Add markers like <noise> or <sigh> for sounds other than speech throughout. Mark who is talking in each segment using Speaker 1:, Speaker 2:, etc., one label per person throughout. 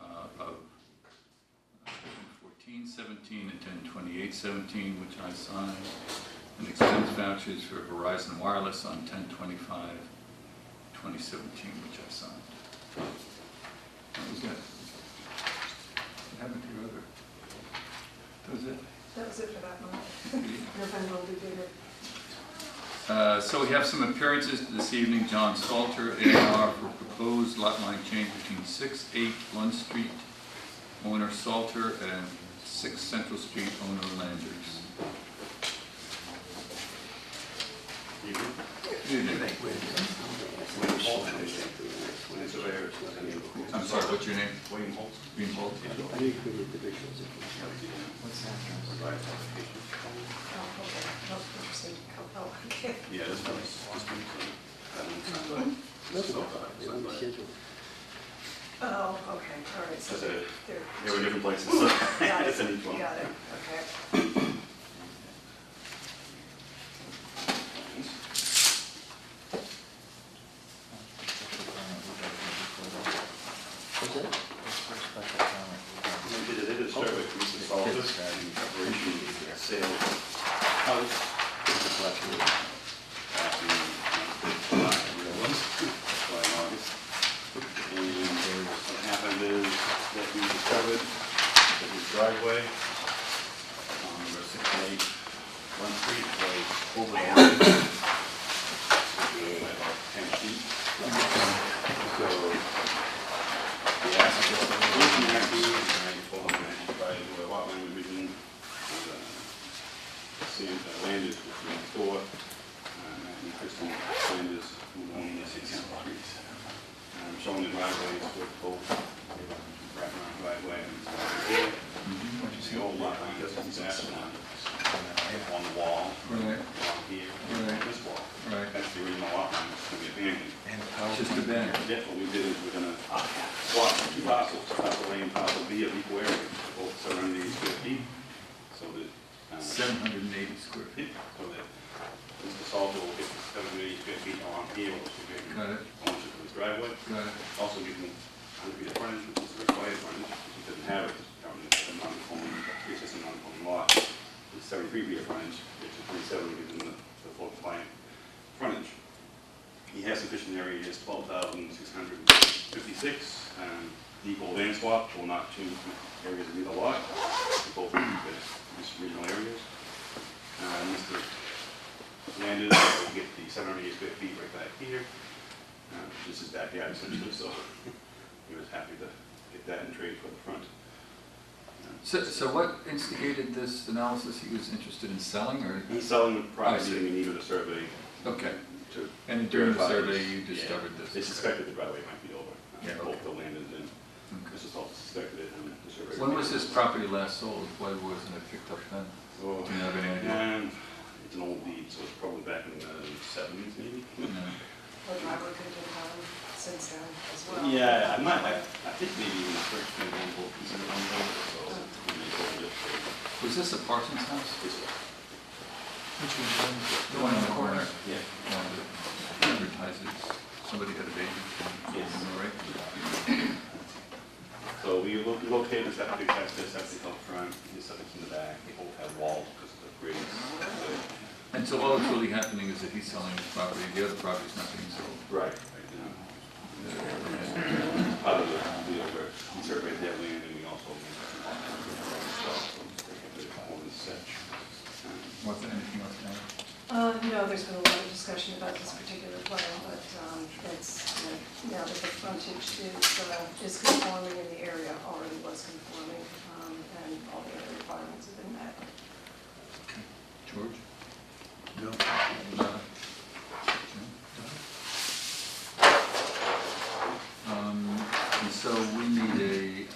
Speaker 1: uh, 17 uh, and ten twenty-eight seventeen, which I signed, and expense vouchers for Verizon Wireless on 10-25-2017, which I signed. That was it. What happened to your other? That was it?
Speaker 2: That was it for that month. November will be bigger.
Speaker 1: Uh, So we have some appearances this evening. John Salter, A and R for proposed lot line change between 6, 8 Lund Street, owner Salter, and 6 Central Street, owner Landers. Evening. I'm sorry, what's your name? Wayne Holt. Wayne Holt, yeah.
Speaker 3: I need the individuals.
Speaker 2: Oh, hold on. Nope, I'm just saying, oh, okay.
Speaker 4: Yeah, this one is, this one is.
Speaker 3: They want to schedule.
Speaker 2: Oh, okay, all right, so
Speaker 4: That's a- <laughs>
Speaker 2: they're.
Speaker 4: Yeah, we're different places, so
Speaker 2: Got it,
Speaker 4: it's in each one.
Speaker 2: Got it, okay.
Speaker 3: What's that?
Speaker 4: We did a- They did a survey, we just saw this in preparation of sale of house. Back in, uh, July, I realized, July, and August. And what happened is that we discovered that his driveway on number sixty-eight, one street was over the line. By about ten feet. So the application might be, I told him that by the lot line revision, uh, seeing that land is between four, um, and Kristen land is one of the six properties. I'm showing the driveways with both, wrap around driveway and here. The old lot line is exactly on, on the wall,
Speaker 1: Right,
Speaker 4: along here,
Speaker 1: Right.
Speaker 4: this wall.
Speaker 1: right.
Speaker 4: That's the original lot line, it's gonna be abandoned.
Speaker 1: Just a banner.
Speaker 4: Yeah, what we did is we're gonna swap two parcels, parcel A and parcel B of equal area, both seven hundred eighty square feet, so that, uh, so
Speaker 1: 780 square feet.
Speaker 4: that Mr. Salter will get seven hundred eighty square feet on here, which will give him
Speaker 1: Got it,
Speaker 4: ownership of his driveway,
Speaker 1: got it.
Speaker 4: also give him hundred feet of frontage, which is required frontage, which he doesn't have, it's becoming a non-conforming, it's just a non-conforming lot. It's seventy-three feet of frontage, which is twenty-seven, gives him the, the full compliant frontage. He has sufficient area, he has twelve thousand six hundred fifty-six, um, equal land swap, will not change the areas of either lot, They're both in these regional areas. Uh, Mr. Landis will get the seven hundred eighty square feet right back here, uh, this is backyard essentially, so he was happy to get that and trade for the front.
Speaker 1: So, so what instigated this analysis? He was interested in selling, or?
Speaker 4: He's selling the
Speaker 1: I
Speaker 4: property,
Speaker 1: see.
Speaker 4: and he needed a survey
Speaker 1: Okay.
Speaker 4: to
Speaker 1: And during the
Speaker 4: verify.
Speaker 1: survey, you
Speaker 4: Yeah.
Speaker 1: discovered this?
Speaker 4: They suspected the driveway might be over.
Speaker 1: Yeah,
Speaker 4: Uh, Both
Speaker 1: okay.
Speaker 4: the landed and
Speaker 1: Okay.
Speaker 4: Mrs. Salt suspected it, and the survey.
Speaker 1: When was this property last sold? Why wasn't it picked up then?
Speaker 4: Oh,
Speaker 1: Do you have any idea?
Speaker 4: um, It's an old deed, so it's probably back in the seventies maybe?
Speaker 2: Well, driveway could have been done since then as well.
Speaker 4: Yeah, I might, I I think maybe even the first maybe we'll consider one of those, so. we may go with it.
Speaker 1: Was this a Parsons house?
Speaker 4: This one.
Speaker 1: The one in the corner?
Speaker 4: Yeah.
Speaker 1: No, the Advertises, somebody had a baby.
Speaker 4: Yes.
Speaker 1: Am I right?
Speaker 4: So we lo- we located the septic, that's the septic up front, the septic's in the back, they both have walls because of the grades.
Speaker 1: And so all that's really happening is that he's selling his property, the other property's not being sold.
Speaker 4: Right. Part of the, we over, we surveyed that land and we also.
Speaker 1: Was there anything else, Karen?
Speaker 2: Uh, no, there's been a lot of discussion about this particular plan, but, um, it's, you know, now that the frontage is, uh, is conforming in the area, already was conforming, um, and all the other requirements have been met.
Speaker 1: George?
Speaker 3: No.
Speaker 1: Donna? Um, And so we need a,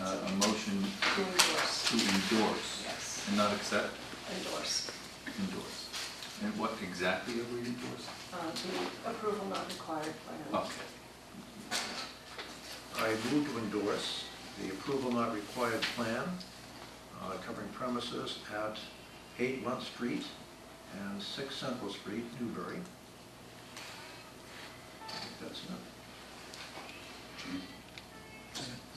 Speaker 1: uh, a motion
Speaker 2: To endorse,
Speaker 1: to endorse
Speaker 2: yes,
Speaker 1: and not accept,
Speaker 2: endorse,
Speaker 1: endorse. And what exactly are we endorsing?
Speaker 2: uh, the approval not required plan.
Speaker 1: Okay.
Speaker 5: I move to endorse the approval not required plan uh, covering premises at 8 Mont Street and 6 Central Street, Newbury. I think That's it.